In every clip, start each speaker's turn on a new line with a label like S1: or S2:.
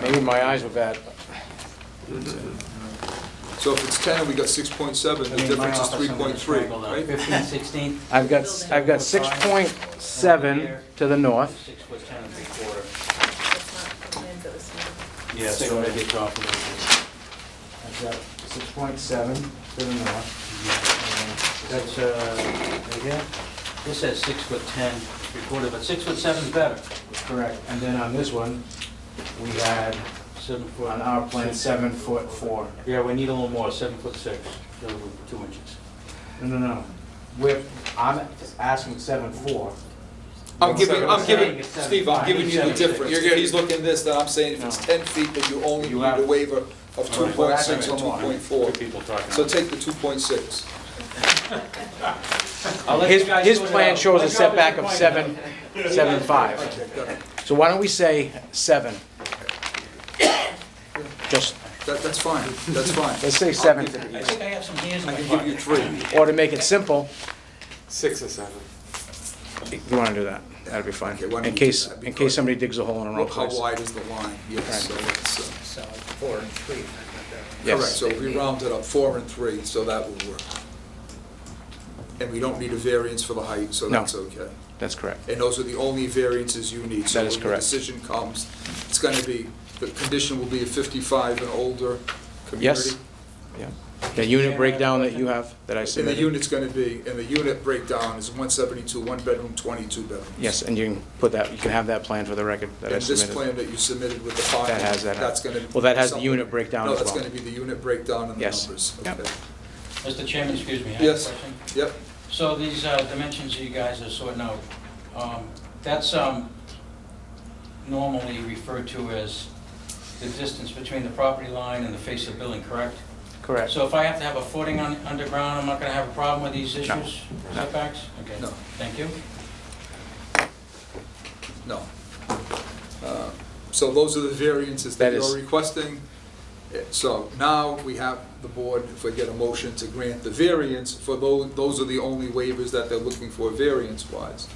S1: Maybe my eyes were bad.
S2: So if it's 10 and we got 6.7, the
S3: I mean, my
S2: difference is
S3: office, I'm gonna
S2: 3.3,
S3: strangle that.
S2: right?
S3: Fifteen, sixteen,
S1: I've got, s- I've got six point seven to the north.
S3: six foot ten and three quarter.
S4: That's not the plans that was submitted.
S3: Yeah, so maybe it's off a little
S1: I've got six point seven to the north.
S3: bit. That's, uh, right here, this says six foot ten, three quarter, but six foot seven's better,
S1: Correct. And then on this one, we had,
S3: seven foot.
S1: on our plan, seven foot four.
S3: Yeah, we need a little more, seven foot six, a little two inches.
S1: No, no, no. We're, I'm asking seven four.
S2: I'm giving, I'm
S1: Saying
S2: giving,
S1: it's seven
S2: Steve, I'm
S1: five.
S2: giving you the
S3: Seven six.
S2: difference. He's looking this, then I'm saying if it's
S1: No.
S2: 10 feet, then you only
S1: You
S2: need
S1: have-
S2: a waiver of
S5: All right.
S2: 2.6 and
S5: Two
S2: 2.4.
S5: people talking.
S2: So take the 2.6.
S3: I'll let you
S1: His,
S3: guys
S1: his
S3: sort it
S1: plan
S3: out.
S1: shows a
S3: My job
S1: setback
S3: is
S1: of
S3: to
S1: seven, seven five.
S2: Okay, got it.
S1: So why don't we say seven? Just,
S2: That, that's fine, that's fine.
S1: let's say
S2: I'll
S1: seven,
S2: give
S3: I
S2: you-
S3: think I have some hands in
S2: I
S3: my
S2: can give you
S3: pocket.
S2: three.
S1: or to make it simple,
S5: Six or seven.
S1: you wanna do that, that'd be fine.
S2: Okay, why don't
S1: In
S2: we do
S1: case,
S2: that?
S1: in case somebody digs a hole in the wrong
S2: Look how
S1: place.
S2: wide is the line, yes, so it's, uh,
S6: So four and three, if I got that right.
S2: correct.
S1: Yes.
S2: So we rounded up four and three, so that will work. And we don't need a variance for the height, so
S1: No.
S2: that's okay.
S1: That's correct.
S2: And those are the only variances you need.
S1: That is
S2: So when the
S1: correct.
S2: decision comes, it's going to be, the condition will be a 55 and older community.
S1: Yes, yeah. The unit breakdown that you have, that I
S2: And the
S1: submitted.
S2: unit's going to be, and the unit breakdown is 172, one bedroom, 22 bedrooms.
S1: Yes, and you can put that, you can have that plan for the record that I
S2: And this
S1: submitted.
S2: plan that you submitted with the file,
S1: That has that.
S2: that's going to.
S1: Well, that has the unit breakdown
S2: No,
S1: as
S2: that's
S1: well.
S2: going to be the unit breakdown and the
S1: Yes.
S2: numbers.
S1: Yep.
S2: Okay.
S3: Mr. Chairman, excuse me, I have a
S2: Yes.
S3: question.
S2: Yep,
S3: So these uh, dimensions you guys are sorting out, um, that's um, normally referred to as the distance between the property line and the face of building, correct?
S1: Correct.
S3: So if I have to have a footing on, underground, I'm not gonna have a problem with these
S1: No.
S3: issues, setbacks? Okay,
S2: No.
S3: thank you.
S2: no. Uh, So those are the variances that
S1: That is-
S2: you're requesting. Uh, So now we have the board, if we get a motion to grant the variance, for those, those are the only waivers that they're looking for variance-wise.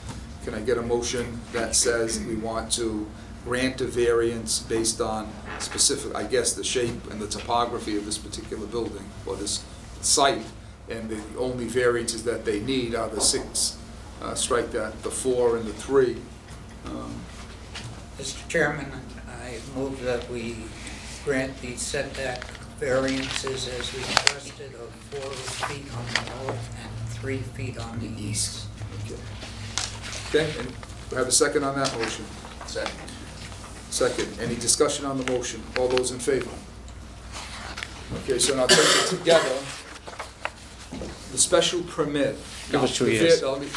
S2: Can I get a motion that says we want to grant a variance based on specific, I guess, the shape and the topography of this particular building or this site? And the only variances that they need are the six, uh, strike that, the four and the three. Um,
S6: Mr. Chairman, I move that we grant the setback variances as requested of four feet on the north and three feet on the east.
S2: Okay, Okay. and we have a second on that motion? Second. Second, any discussion on the motion? All those in favor? Okay, so now take it together. The special permit.
S1: Give us two
S2: The va-
S1: years.
S2: now, let me-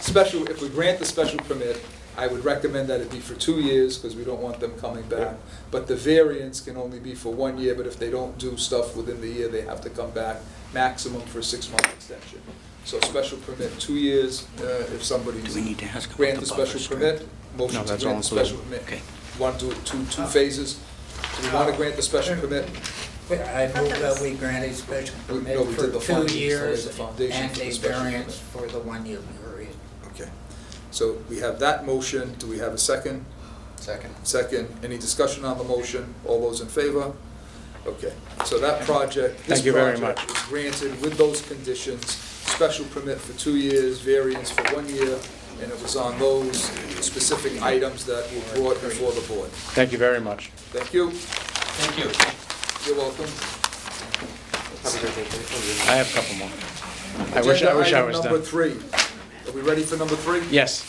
S2: Special, if we grant the special permit, I would recommend that it be for two years, because we don't want them coming back. But the variance can only be for one year, but if they don't do stuff within the year, they have to come back, maximum for a six-month extension. So special permit, two years, uh, if somebody's,
S3: to ask
S2: grant the special permit,
S1: No,
S2: motion to
S1: that's
S2: grant
S1: all
S2: the special
S1: included.
S2: permit.
S3: Okay.
S2: Want to do it two, two phases? Do we want to grant the special permit?
S6: I move that we grant a special
S2: We- no,
S6: permit
S2: we did the
S6: for
S2: foundation, so
S6: two years
S2: there's a foundation
S6: and
S2: for the
S6: a
S2: special
S6: variance for the one-year period.
S2: Okay, so we have that motion, do we have a second?
S6: Second.
S2: Second, any discussion on the motion? All those in favor? Okay, so that project, this
S1: Thank you very
S2: project is granted with those conditions, special permit for two years, variance for one year, and it was on those specific items that were brought before the board.
S1: Thank you very much.
S2: Thank you,
S3: Thank you.
S2: you're welcome.
S1: I have a couple more. I wish, I wish I was
S2: Agenda item
S1: done.
S2: number three, are we ready for number three?
S1: Yes.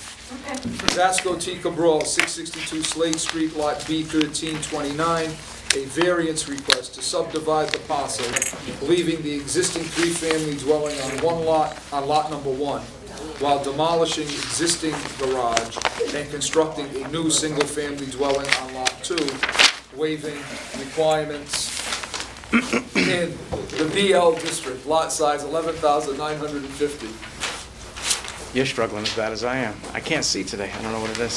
S2: Vasco T. Cabral, 662 Slade Street, Lot B1329, a variance request to subdivide the parcel, leaving the existing three-family dwelling on one lot, on lot number one, while demolishing existing garage and constructing a new single-family dwelling on lot two, waiving requirements in the BL district, lot size 11,950.
S1: You're struggling as bad as I am. I can't see today. I don't know what it is.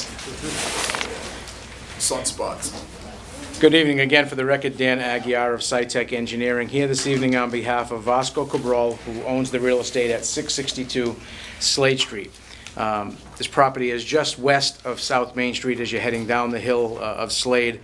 S2: Sunspots.
S1: Good evening again for the record, Dan Aguirre of SciTech Engineering, here this evening on behalf of Vasco Cabral, who owns the real estate at 662 Slade Street. Um, This property is just west of South Main Street as you're heading down the hill uh, of Slade